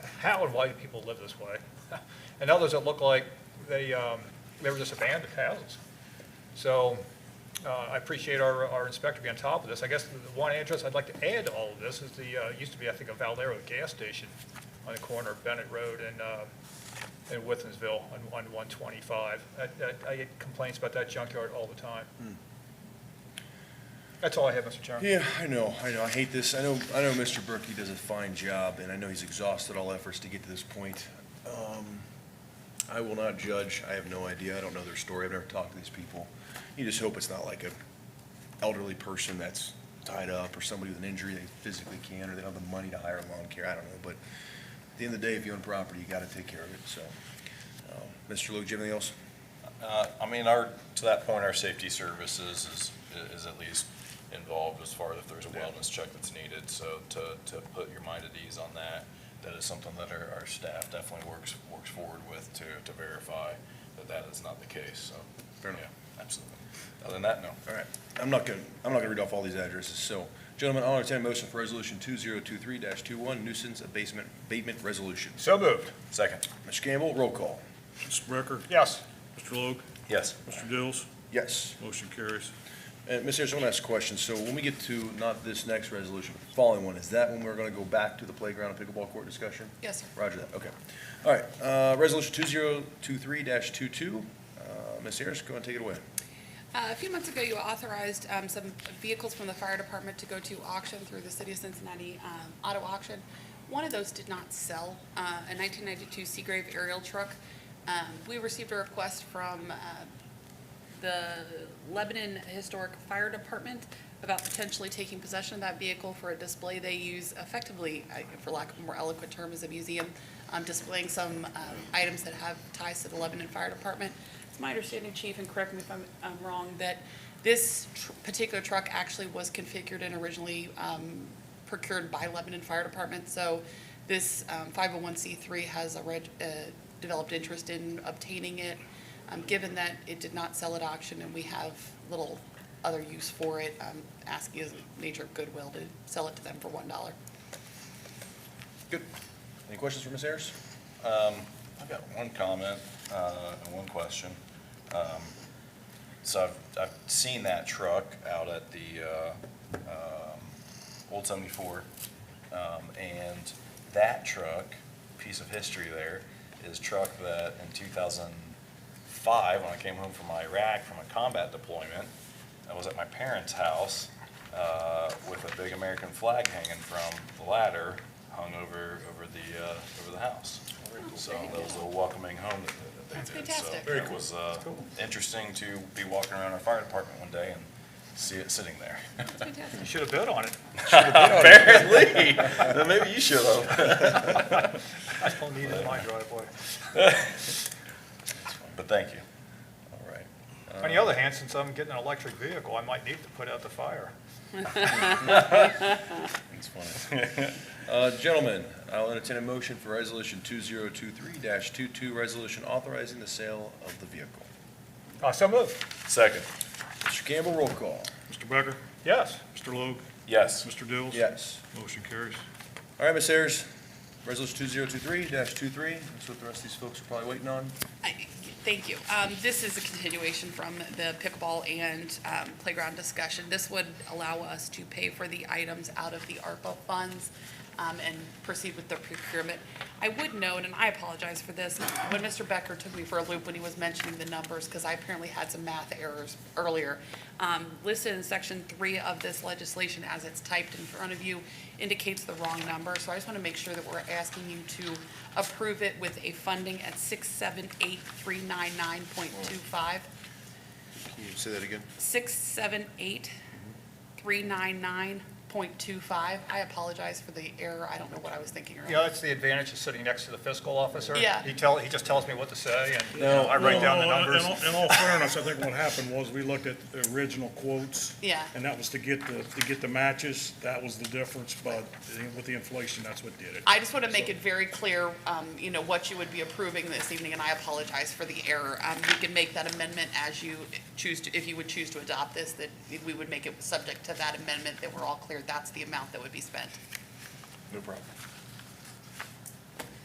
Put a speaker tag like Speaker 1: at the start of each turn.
Speaker 1: how and why do people live this way? And others that look like they, um, they were just abandoned houses. So uh, I appreciate our, our inspector being on top of this. I guess the one address I'd like to add to all of this is the, uh, used to be, I think, a Valero gas station on the corner of Bennett Road and, uh, and Withensville on, on 125. I- I, I get complaints about that junkyard all the time. Hmm. That's all I have, Mr. Chairman.
Speaker 2: Yeah, I know, I know, I hate this, I know, I know Mr. Berkey does a fine job, and I know he's exhausted all efforts to get to this point. Um, I will not judge, I have no idea, I don't know their story, I've never talked to these people. You just hope it's not like a elderly person that's tied up, or somebody with an injury they physically can, or they don't have the money to hire lawn care, I don't know, but at the end of the day, if you own property, you gotta take care of it, so. um, Mr. Luke, do you have anything else?
Speaker 3: Uh, I mean, our, to that point, our safety services is, is at least involved as far as if there's a
Speaker 2: Yeah.
Speaker 3: wellness check that's needed. So to, to put your mind at ease on that, that is something that our, our staff definitely works, works forward with to, to verify that that is not the case, so.
Speaker 2: Fair enough.
Speaker 3: yeah, Absolutely. Other than that, no.
Speaker 2: All right, I'm not gonna, I'm not gonna read off all these addresses, so, gentlemen, I'll entertain a motion for resolution two zero two three 21 nuisance abatement, abatement resolution.
Speaker 1: So moved.
Speaker 3: Second.
Speaker 2: Mr. Campbell, roll call.
Speaker 4: Mr. Brecker.
Speaker 1: Yes.
Speaker 4: Mr. Logue.
Speaker 3: Yes.
Speaker 4: Mr. Dills.
Speaker 2: Yes.
Speaker 4: Motion carries.
Speaker 2: And, Ms. Harris, I wanna ask a question, so when we get to, not this next resolution, but the following one, is that when we're gonna go back to the playground and pickleball court discussion?
Speaker 5: Yes, sir.
Speaker 2: Roger that, okay. All right, uh, resolution two zero two three 22 uh, Ms. Harris, go and take it away.
Speaker 5: Uh, A few months ago, you authorized um, some vehicles from the fire department to go to auction through the city of Cincinnati um, auto auction. One of those did not sell, uh, a 1992 Seagrave aerial truck. Um, We received a request from uh, the Lebanon Historic Fire Department about potentially taking possession of that vehicle for a display they use effectively, I- for lack of a more eloquent term, as a museum, um, displaying some um, items that have ties to the Lebanon Fire Department. It's my understanding, Chief, and correct me if I'm I'm wrong, that this tr- particular truck actually was configured and originally um, procured by Lebanon Fire Department. So this um, 501c3 has a reg- uh, developed interest in obtaining it, um, given that it did not sell at auction and we have little other use for it, um, asking as a nature of goodwill to sell it to them for $1.
Speaker 2: Good. Any questions for Ms. Harris?
Speaker 3: I've got one comment uh, and one question. Um, So I've, I've seen that truck out at the uh, um, Old 74, um, and that truck, piece of history there, is truck that in 2005, when I came home from Iraq from a combat deployment, I was at my parents' house uh, with a big American flag hanging from the ladder hung over, over the, uh, over the house. So that was a welcoming home that- that they
Speaker 5: Oh, That's
Speaker 3: did.
Speaker 5: fantastic.
Speaker 3: So it was uh, interesting to be walking around our fire department one day and see it sitting there.
Speaker 5: That's fantastic.
Speaker 1: You should have bid on it.
Speaker 3: Apparently, then maybe you should have.
Speaker 1: I still need it in my driveway.
Speaker 3: But thank you.
Speaker 2: All right.
Speaker 1: On the other hand, since I'm getting an electric vehicle, I might need to put out the fire.
Speaker 2: It's funny. Uh, Gentlemen, I'll entertain a motion for Resolution 2023-22, resolution authorizing the sale of the vehicle.
Speaker 1: Uh, so moved.
Speaker 3: Second,
Speaker 2: Mr. Campbell, roll call.
Speaker 4: Mr. Becker.
Speaker 1: Yes.
Speaker 4: Mr. Logue.
Speaker 3: yes.
Speaker 4: Mr. Dills.
Speaker 2: Yes.
Speaker 4: Motion carries.
Speaker 2: All right, Ms. Ayers, Resolution 2023-23, that's what the rest of these folks are probably waiting on.
Speaker 5: I- Thank you. Um, This is a continuation from the pickleball and um, playground discussion. This would allow us to pay for the items out of the ARPA funds um, and proceed with the procurement. I would note, and I apologize for this, when Mr. Becker took me for a loop when he was mentioning the numbers, because I apparently had some math errors earlier. um, Listed in section three of this legislation, as it's typed in front of you, indicates the wrong number. So I just want to make sure that we're asking you to approve it with a funding at six seven eight three nine nine point two five,
Speaker 2: Can you say that again?
Speaker 5: six seven eight three nine nine point two five. I apologize for the error. I don't know what I was thinking
Speaker 1: You know,
Speaker 5: earlier.
Speaker 1: that's the advantage of sitting next to the fiscal officer.
Speaker 5: Yeah.
Speaker 1: He tell, he just tells me what to say, and, you
Speaker 2: No.
Speaker 1: know, I write down the
Speaker 4: Well, in-
Speaker 1: numbers.
Speaker 4: In all- in all fairness, I think what happened was we looked at the original quotes.
Speaker 5: Yeah.
Speaker 4: And that was to get the, to get the matches. That was the difference, but with the inflation, that's what did it.
Speaker 5: I just want to make it very clear, um, you know, what you would be approving this evening, and I apologize for the error. Um, You can make that amendment as you choose to, if you would choose to adopt this, that we would make it subject to that amendment, that we're all clear that's the amount that would be spent.
Speaker 2: No problem.